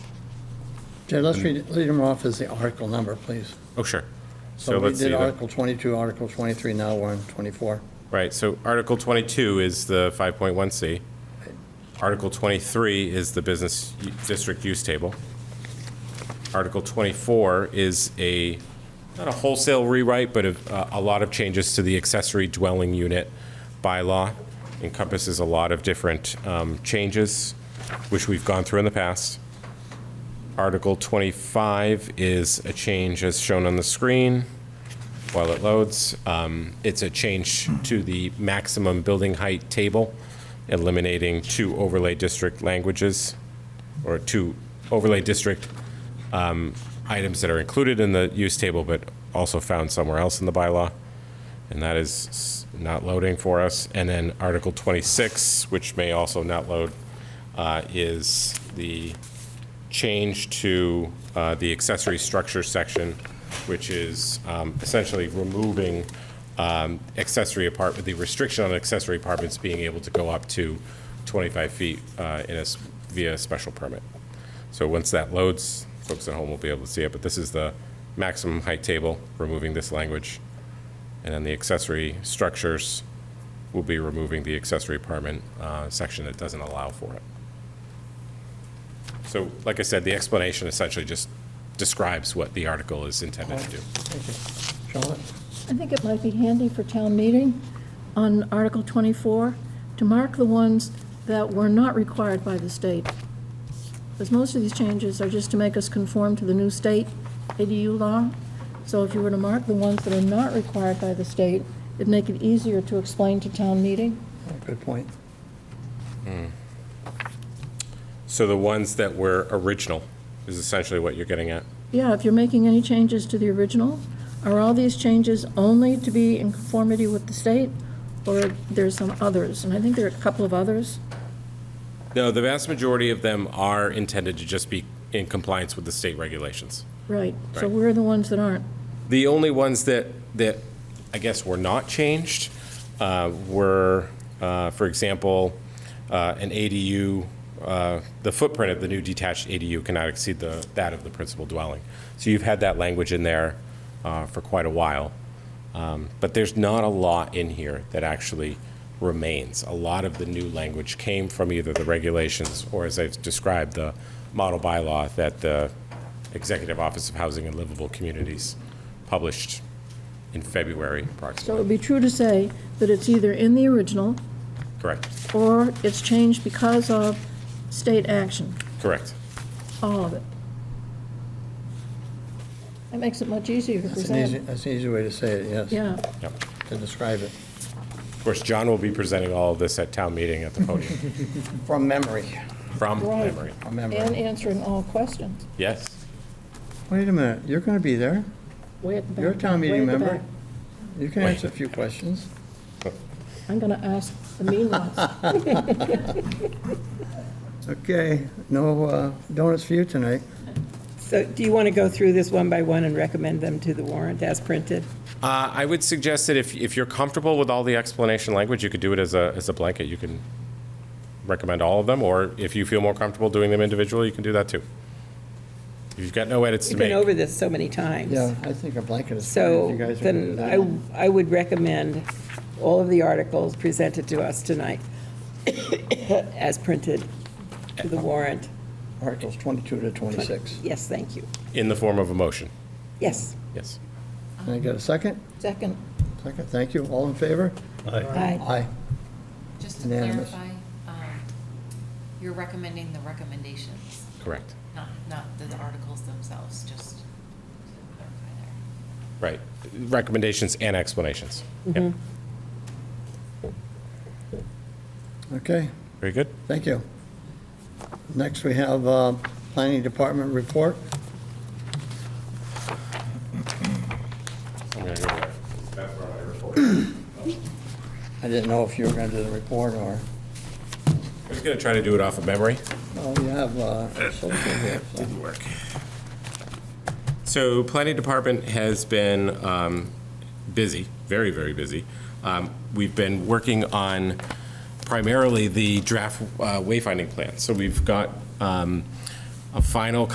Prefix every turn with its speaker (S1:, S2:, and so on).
S1: Jared, let's read, read them off as the article number, please.
S2: Oh, sure. So
S1: So we
S2: let's see.
S1: did
S2: the-
S1: Article 22, Article 23, now we're on 24.
S2: Right, so Article 22 is the 5.1C. Article 23 is the business u- district use table. Article 24 is a, not a wholesale rewrite, but a, a lot of changes to the accessory dwelling unit bylaw. Encompasses a lot of different um, changes, which we've gone through in the past. Article 25 is a change as shown on the screen while it loads. Um, It's a change to the maximum building height table, eliminating two overlay district languages, or two overlay district um, items that are included in the use table, but also found somewhere else in the bylaw. And that is s- not loading for us. And then Article 26, which may also not load, uh, is the change to uh, the accessory structure section, which is um, essentially removing um, accessory apartment, the restriction on accessory apartments being able to go up to 25 feet uh, in a, s- via a special permit. So once that loads, folks at home will be able to see it, but this is the maximum height table, removing this language. And then the accessory structures will be removing the accessory apartment uh, section that doesn't allow for it. So, like I said, the explanation essentially just describes what the article is intended to do.
S1: Thank you. Charlotte?
S3: I think it might be handy for town meeting on Article 24 to mark the ones that were not required by the state. Because most of these changes are just to make us conform to the new state ADU law. So if you were to mark the ones that are not required by the state, it'd make it easier to explain to town meeting.
S1: Good point.
S2: So the ones that were original is essentially what you're getting at.
S3: Yeah, if you're making any changes to the original, are all these changes only to be in conformity with the state? Or there's some others? And I think there are a couple of others.
S2: No, the vast majority of them are intended to just be in compliance with the state regulations.
S3: Right, so
S2: Right.
S3: where are the ones that aren't?
S2: The only ones that, that I guess were not changed uh, were, uh, for example, uh, an ADU, uh, the footprint of the new detached ADU cannot exceed the, that of the principal dwelling. So you've had that language in there uh, for quite a while. Um, But there's not a lot in here that actually remains. A lot of the new language came from either the regulations or, as I've described, the model bylaw that the Executive Office of Housing and Livable Communities published in February
S3: So it
S2: approximately.
S3: would be true to say that it's either in the original,
S2: Correct,
S3: or it's changed because of state action,
S2: correct.
S3: all of it. That makes it much easier to
S1: That's an easy,
S3: present.
S1: that's an easy way to say it, yes.
S3: Yeah,
S2: Yep.
S1: To describe it,
S2: Of course, John will be presenting all of this at town meeting at the podium,
S1: from memory,
S2: from
S3: Right.
S2: memory.
S1: from memory.
S3: and answering all questions.
S2: Yes,
S1: Wait a minute, you're going to be there?
S3: Way at the back.
S1: You're a town meeting
S3: way at the
S1: member?
S3: back.
S1: You can answer a few questions.
S3: I'm going to ask the mean ones.
S1: Okay, no uh, donuts for you tonight.
S4: So do you want to go through this one by one and recommend them to the warrant as printed?
S2: Uh, I would suggest that if, if you're comfortable with all the explanation language, you could do it as a, as a blanket. You can recommend all of them, or if you feel more comfortable doing them individually, you can do that too. If you've got no edits to
S4: We've
S2: make.
S4: been over this so many times.
S1: Yeah, I think a blanket is fine if
S4: So
S1: you guys are going to do
S4: then
S1: that.
S4: I, I would recommend all of the articles presented to us tonight as printed to the warrant.
S1: Articles 22 to 26.
S4: Yes, thank you.
S2: In the form of a motion,
S4: Yes.
S2: yes.
S1: Can I get a second?
S3: Second,
S1: Second, thank you. All in favor?
S4: Aye.
S1: Aye.
S5: Just to
S1: Unanimous.
S5: clarify, um, you're recommending the recommendations,
S2: Correct.
S5: not, not the articles themselves, just to clarify there.
S2: Right. Recommendations and explanations. Yep.
S1: Okay,
S2: Very good.
S1: thank you. Next, we have uh, Planning Department report.
S2: I'm gonna go there. That's where I report.
S1: I didn't know if you were going to do the report or,
S2: I was gonna try to do it off of memory.
S1: oh, you have uh, social here. so-
S2: Didn't work. So planning department has been um, busy, very, very busy. Um, We've been working on primarily the draft uh, wayfinding plan. So we've got um, a final